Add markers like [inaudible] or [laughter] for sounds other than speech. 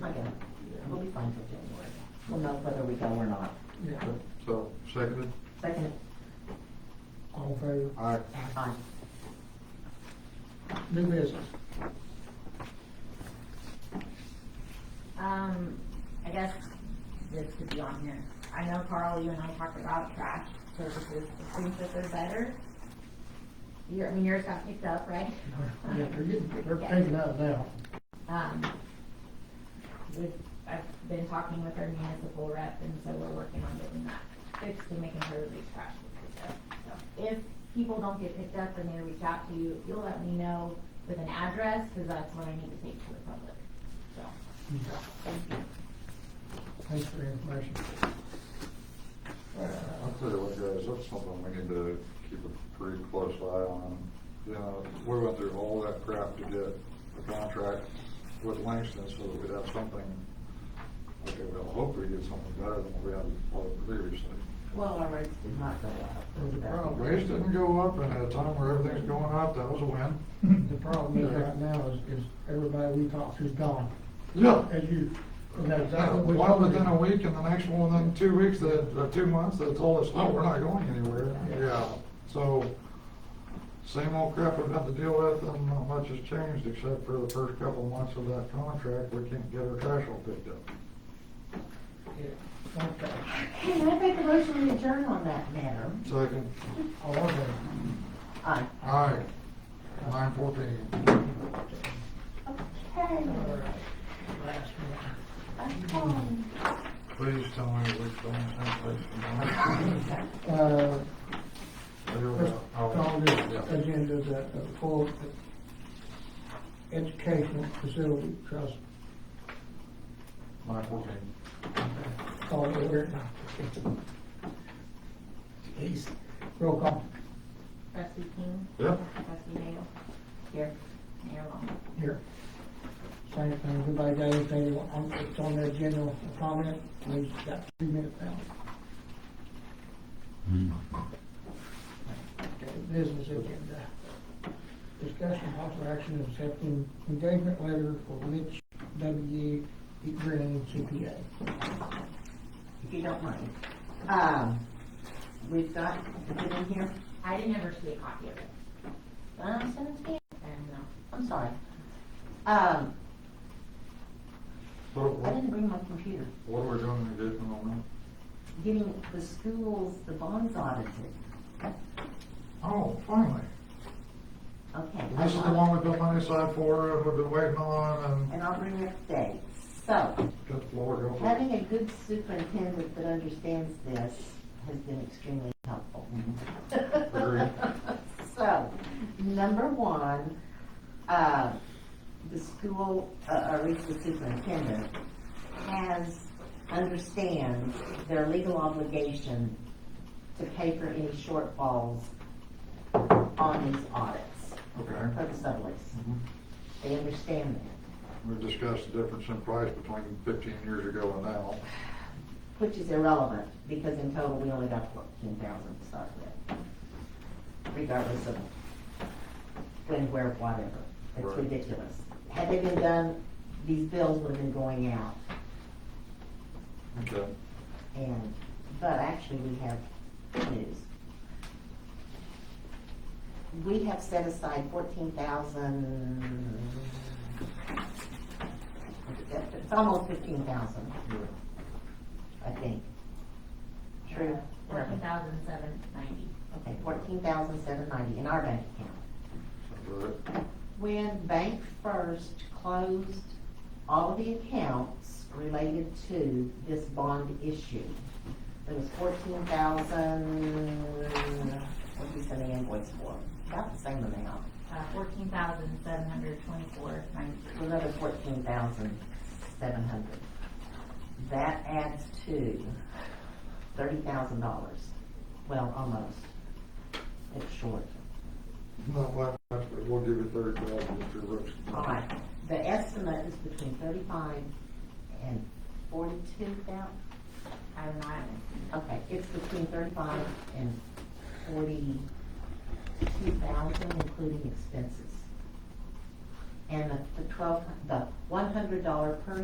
uh, we'll know whether we go or not. Yeah, Okay, So, seconded? Second, all in favor, Aye. aye. new business. Um, I guess this could be on here. I know Carl, you and I talked about trash services, it seems that they're better. Your, I mean, yours got picked up, right? Yeah, they're getting, [laughs] they're taking out now. Um, we've, I've been talking with our municipal rep, and so we're working on getting that fixed and making sure that these trash is picked up. So If people don't get picked up and they reach out to you, if you'll let me know with an address, because that's what I need to take to the public, so. Mm-hmm. Thanks for the information. I'll tell you what, guys, that's something we need to keep a pretty close eye on. You know, we went through all that crap to get the contract with Langston so that we'd have something, okay, well, hopefully get something better than what we had previously. Well, our rates did not go up. Well, rates didn't go up, and at a time where everything's going up, that was a win. [laughs] The problem is right now is, is everybody we talk to's gone, Yeah. as you, and that's exactly what. Well, within a week, and the next one, then two weeks, that, uh, two months, they told us, no, we're not going anywhere. Yeah, so, same old crap we've had to deal with, and not much has changed, except for the first couple months of that contract, we can't get our trash all picked up. Yeah, Okay, Can I make a motion to adjourn on that matter? Second, all of them. Aye. aye, nine fourteen. Okay. All right, last one. Okay. Please tell me which one, same place. Uh, There we let's go. call Oh, this yeah. agenda uh, the the full educational facility trust, Nine fourteen. call it over. Jeez. Roll call, Trustee King? Yep. Trustee Dale? Here. Mayor Long? here. Same thing, everybody got anything, they want- on- it's on their general comment, we just got two minutes now. Okay, business agenda. Discussion of possible action of accepting engagement letter for Rich W. Green CPA. If you don't mind. Um, we've got, it in here? I didn't ever see a copy of it. Um, seventeen, And uh, no. I'm sorry. Um, What, I what, didn't bring my computer. what are we doing in addition on Getting the schools, the bonds audited. that? Oh, finally. Okay. Um, This is the one we've been money aside for, and we've been waiting on, And I'll bring it today. So, and got the floor go for it. Having a good superintendent that understands this has been extremely helpful. Agreed. [laughs] So, number one, uh, the school, uh, or at least the superintendent, has, understands their legal obligation to pay for any shortfalls on these audits Okay. for the sublease. Mhm. They understand that, We discussed the difference in price between fifteen years ago and now. which is irrelevant, because in total, we only got fourteen thousand to start with. regardless of when, where, whatever. It's Right. ridiculous. Had they been done, these bills would have been going out. Okay. And, but actually, we have good news. We have set aside fourteen thousand, it's almost fifteen thousand, Yeah. I think. True. uh, Fourteen thousand seven ninety. Okay, fourteen thousand seven ninety in our bank account. Sounds right. When Bank First closed all of the accounts related to this bond issue, there was fourteen thousand, what did we send the invoice for? About the same amount, Uh, fourteen thousand seven hundred twenty-four ninety. another fourteen thousand seven hundred. That adds to thirty thousand dollars, well, almost. It's short. Not that much, but we'll give you thirty thousand if you're rich. All right, the estimate is between thirty-five and forty-two thousand. I don't know, I haven't seen it. Okay, it's between thirty-five and forty-two thousand, including expenses. And the- the twelve, the one hundred dollar per